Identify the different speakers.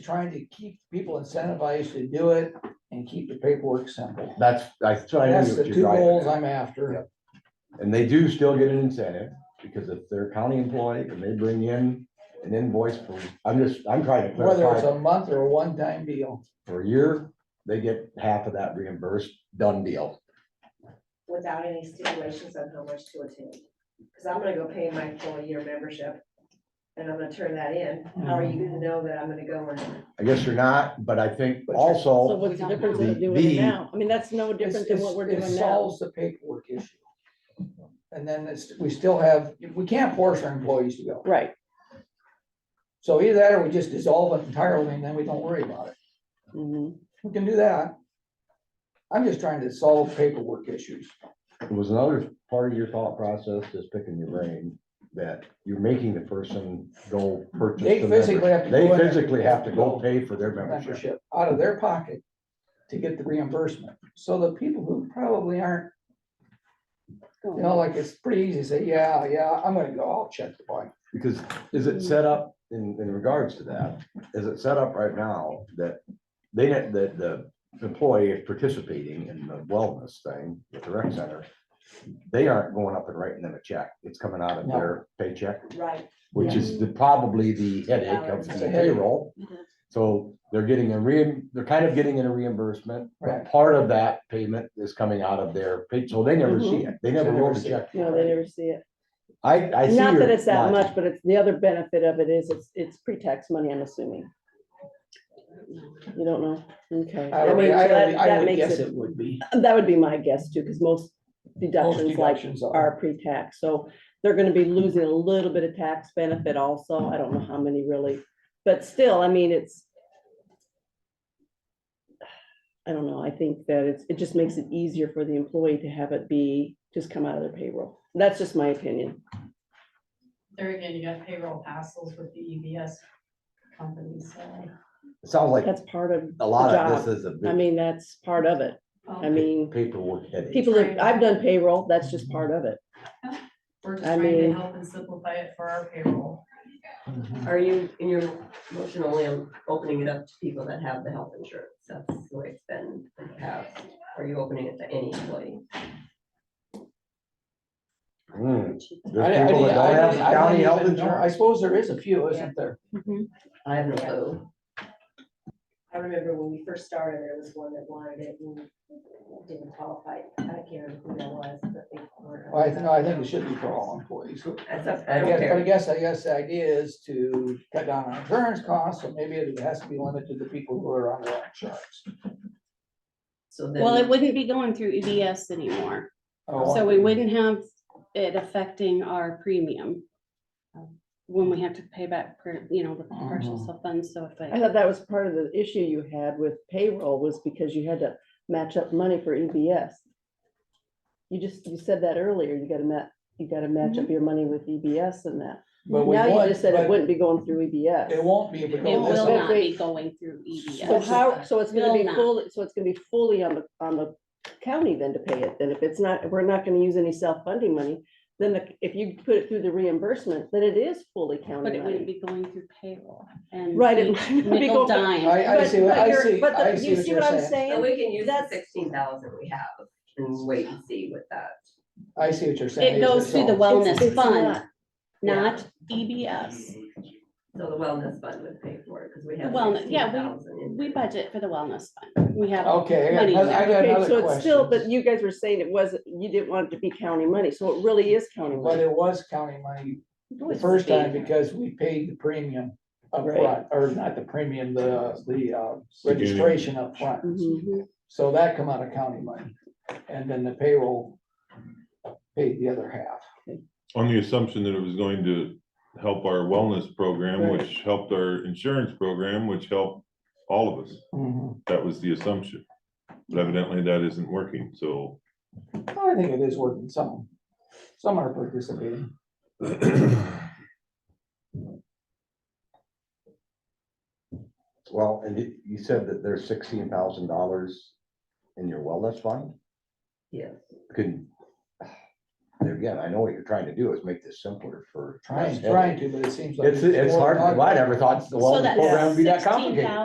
Speaker 1: trying to keep people incentivized to do it and keep the paperwork simple.
Speaker 2: That's, I try to
Speaker 1: That's
Speaker 2: do
Speaker 1: the
Speaker 2: what
Speaker 1: two
Speaker 2: you're
Speaker 1: goals
Speaker 2: driving at.
Speaker 1: I'm after.
Speaker 2: And they do still get an incentive, because if they're a county employee and they bring in an invoice for, I'm just, I'm trying to
Speaker 1: Whether it's
Speaker 2: clarify,
Speaker 1: a month or a one-time deal,
Speaker 2: for a year, they get half of that reimbursed, done deal.
Speaker 3: without any stipulations on how much to attend. Cause I'm gonna go pay my full year membership and I'm gonna turn that in. How are you gonna know that I'm gonna go and
Speaker 2: I guess you're not, but I think
Speaker 1: But you're-
Speaker 4: So
Speaker 2: also,
Speaker 4: what's the difference
Speaker 2: The-
Speaker 4: in doing
Speaker 2: the-
Speaker 4: it now? I mean, that's no
Speaker 1: it's,
Speaker 4: different than
Speaker 1: it's,
Speaker 4: what we're
Speaker 1: it
Speaker 4: doing now.
Speaker 1: solves the paperwork issue. And then it's, we still have, we can't force our employees to go.
Speaker 4: Right.
Speaker 1: So either that or we just dissolve it entirely and then we don't worry about it.
Speaker 4: Mhm.
Speaker 1: We can do that. I'm just trying to solve paperwork issues.
Speaker 2: it was another part of your thought process, just picking your brain, that you're making the person go purchase.
Speaker 1: They
Speaker 2: the member-
Speaker 1: physically have to
Speaker 2: They
Speaker 1: go in there.
Speaker 2: physically have to go pay for their membership.
Speaker 1: membership out of their pocket to get the reimbursement. So the people who probably aren't, you know, like it's pretty easy to say, yeah, yeah, I'm gonna go, I'll check the bike.
Speaker 2: Because is it set up in, in regards to that? Is it set up right now that they, didn't- that the employee is participating in the wellness thing with the rec center? They aren't going up and writing them a check. It's coming out of
Speaker 1: No.
Speaker 2: their paycheck,
Speaker 3: Right.
Speaker 2: which is the, probably the headache of
Speaker 3: It's
Speaker 1: a
Speaker 2: the
Speaker 1: headache.
Speaker 2: payroll. So they're getting a re, they're kind of getting in a reimbursement,
Speaker 1: Right.
Speaker 2: but part of that payment is coming out of their pay, so they never
Speaker 4: Mm-hmm.
Speaker 2: see it. They never
Speaker 1: They never
Speaker 2: wrote a
Speaker 1: see
Speaker 2: check.
Speaker 4: No, they never see it.
Speaker 2: I, I see.
Speaker 4: Not
Speaker 2: your
Speaker 4: that it's that
Speaker 2: logic.
Speaker 4: much, but it's, the other benefit of it is it's, it's pre-tax money, I'm assuming. You don't know? Okay.
Speaker 1: I
Speaker 4: I
Speaker 1: would,
Speaker 4: mean,
Speaker 1: I
Speaker 4: so
Speaker 1: would,
Speaker 4: that,
Speaker 1: I
Speaker 4: that
Speaker 1: would
Speaker 4: makes
Speaker 1: guess
Speaker 4: it,
Speaker 1: it would be.
Speaker 4: that would be my guess too, because most
Speaker 1: Most
Speaker 4: deductions like
Speaker 1: deductions are.
Speaker 4: are pre-tax. So they're gonna be losing a little bit of tax benefit also. I don't know how many really, but still, I mean, it's. I don't know. I think that it's, it just makes it easier for the employee to have it be, just come out of their payroll. That's just my opinion.
Speaker 5: There again, you got payroll hassles with the EBS companies, so.
Speaker 2: It Sounds like
Speaker 4: That's part of,
Speaker 2: a lot of this is a
Speaker 4: I
Speaker 2: big
Speaker 4: mean, that's part of it. I
Speaker 5: um,
Speaker 4: mean,
Speaker 2: paperwork headache.
Speaker 4: people, that- I've done payroll, that's just part of it.
Speaker 5: We're just
Speaker 4: I
Speaker 5: trying to
Speaker 4: mean-
Speaker 5: help and simplify it for our payroll.
Speaker 2: Mm-hmm.
Speaker 6: Are you, in your motion only on opening it up to people that have the health insurance? That's the way it's been in the past. Are you opening it to any employee?
Speaker 1: I-
Speaker 2: Hmm.
Speaker 1: I
Speaker 2: There's people
Speaker 1: didn't-
Speaker 2: that
Speaker 1: I
Speaker 2: don't have
Speaker 1: didn't- I
Speaker 2: county
Speaker 1: didn't
Speaker 2: health
Speaker 1: even know. I
Speaker 2: insurance.
Speaker 1: suppose there is a few, isn't there?
Speaker 6: I have no clue.
Speaker 3: I remember when we first started, there was one that wanted it and didn't qualify. I can't remember who that was, but they were.
Speaker 1: Well, I think, I think it should be for all employees. But
Speaker 6: That's up- I
Speaker 1: I
Speaker 6: don't
Speaker 1: guess, but I
Speaker 6: care.
Speaker 1: guess, I guess the idea is to cut down on insurance costs, so maybe it has to be limited to people who are on their insurance.
Speaker 6: So
Speaker 7: Well, it
Speaker 6: then,
Speaker 7: wouldn't be going through EBS anymore,
Speaker 1: Oh,
Speaker 7: so we wouldn't have it affecting our premium. um, When we have to pay back, per- you know, the
Speaker 2: Mm-hmm.
Speaker 7: partial
Speaker 1: Mhm.
Speaker 7: self-funds, so if
Speaker 4: I
Speaker 7: I,
Speaker 4: thought that was part of the issue you had with payroll was because you had to match up money for EBS. You just, you said that earlier, you gotta ma, you gotta match
Speaker 7: Mm-hmm.
Speaker 4: up your money with EBS and that.
Speaker 1: But we
Speaker 4: Now you
Speaker 1: would,
Speaker 4: just said it
Speaker 1: but
Speaker 4: wouldn't be going through E
Speaker 1: It
Speaker 4: EBS.
Speaker 1: won't be if we
Speaker 7: it
Speaker 1: go this
Speaker 7: will
Speaker 1: way.
Speaker 7: not be going through E
Speaker 4: So
Speaker 7: EBS.
Speaker 4: how, so it's gonna
Speaker 7: Will
Speaker 4: be
Speaker 7: not.
Speaker 4: fully, so it's gonna be fully on the, on the county then to pay it, then if it's not, we're not gonna use any self-funding money. Then the- if you put it through the reimbursement, then it is fully
Speaker 7: But
Speaker 4: county
Speaker 7: it wouldn't
Speaker 4: money.
Speaker 7: be going through payroll and.
Speaker 4: Right. it
Speaker 7: each
Speaker 4: might not be
Speaker 7: Nickel
Speaker 4: going-
Speaker 7: dime,
Speaker 1: I, I
Speaker 4: but-
Speaker 1: see, what-
Speaker 4: but
Speaker 1: I
Speaker 4: you're-
Speaker 1: see,
Speaker 4: but the-
Speaker 1: I
Speaker 4: you
Speaker 1: see what you're
Speaker 4: I'm
Speaker 1: saying.
Speaker 6: and we can use the
Speaker 4: That's-
Speaker 6: sixteen thousand we have and wait and see with that.
Speaker 1: I see what you're saying.
Speaker 7: it
Speaker 1: is
Speaker 7: goes
Speaker 1: it's
Speaker 7: through the
Speaker 1: all-
Speaker 4: It's-
Speaker 7: wellness
Speaker 4: it's
Speaker 7: fund,
Speaker 4: not.
Speaker 7: not E EBS.
Speaker 6: So the wellness fund would pay for it because we have
Speaker 7: Wellness,
Speaker 6: sixteen
Speaker 7: yeah, we-
Speaker 6: thousand.
Speaker 7: We budget for the wellness fund, we
Speaker 2: Oh,
Speaker 7: have.
Speaker 1: Okay, I got
Speaker 7: Money.
Speaker 1: another, I got
Speaker 4: Okay, so
Speaker 1: another
Speaker 4: it's still, but
Speaker 1: question.
Speaker 4: you guys were saying it wasn't, you didn't want it to be county money, so it really is county
Speaker 1: But
Speaker 4: money.
Speaker 1: it was county money the
Speaker 7: It's
Speaker 1: first time
Speaker 7: paid.
Speaker 1: because we paid the premium
Speaker 4: Right.
Speaker 1: upfront, or not the premium, the, the, uh, registration upfront.
Speaker 4: Mhm.
Speaker 1: So that come out of county money, and then the payroll paid the other half.
Speaker 8: On the assumption that it was going to help our wellness program,
Speaker 4: Right.
Speaker 8: which helped our insurance program, which helped all of us.
Speaker 2: Mm-hmm.
Speaker 8: That was the assumption. But evidently that isn't working, so.
Speaker 1: I think it is working some, some are participating.
Speaker 2: Well, and you- you said that there's sixteen thousand dollars in your wellness fund?
Speaker 6: Yes.
Speaker 2: Could, again, I know what you're trying to do is make this simpler for.
Speaker 1: Trying, trying to, but it seems like.
Speaker 2: It's, it's hard, I never thought the
Speaker 7: So
Speaker 2: wellness
Speaker 7: that's
Speaker 2: program would be that
Speaker 7: sixteen
Speaker 2: complicated.
Speaker 7: thousand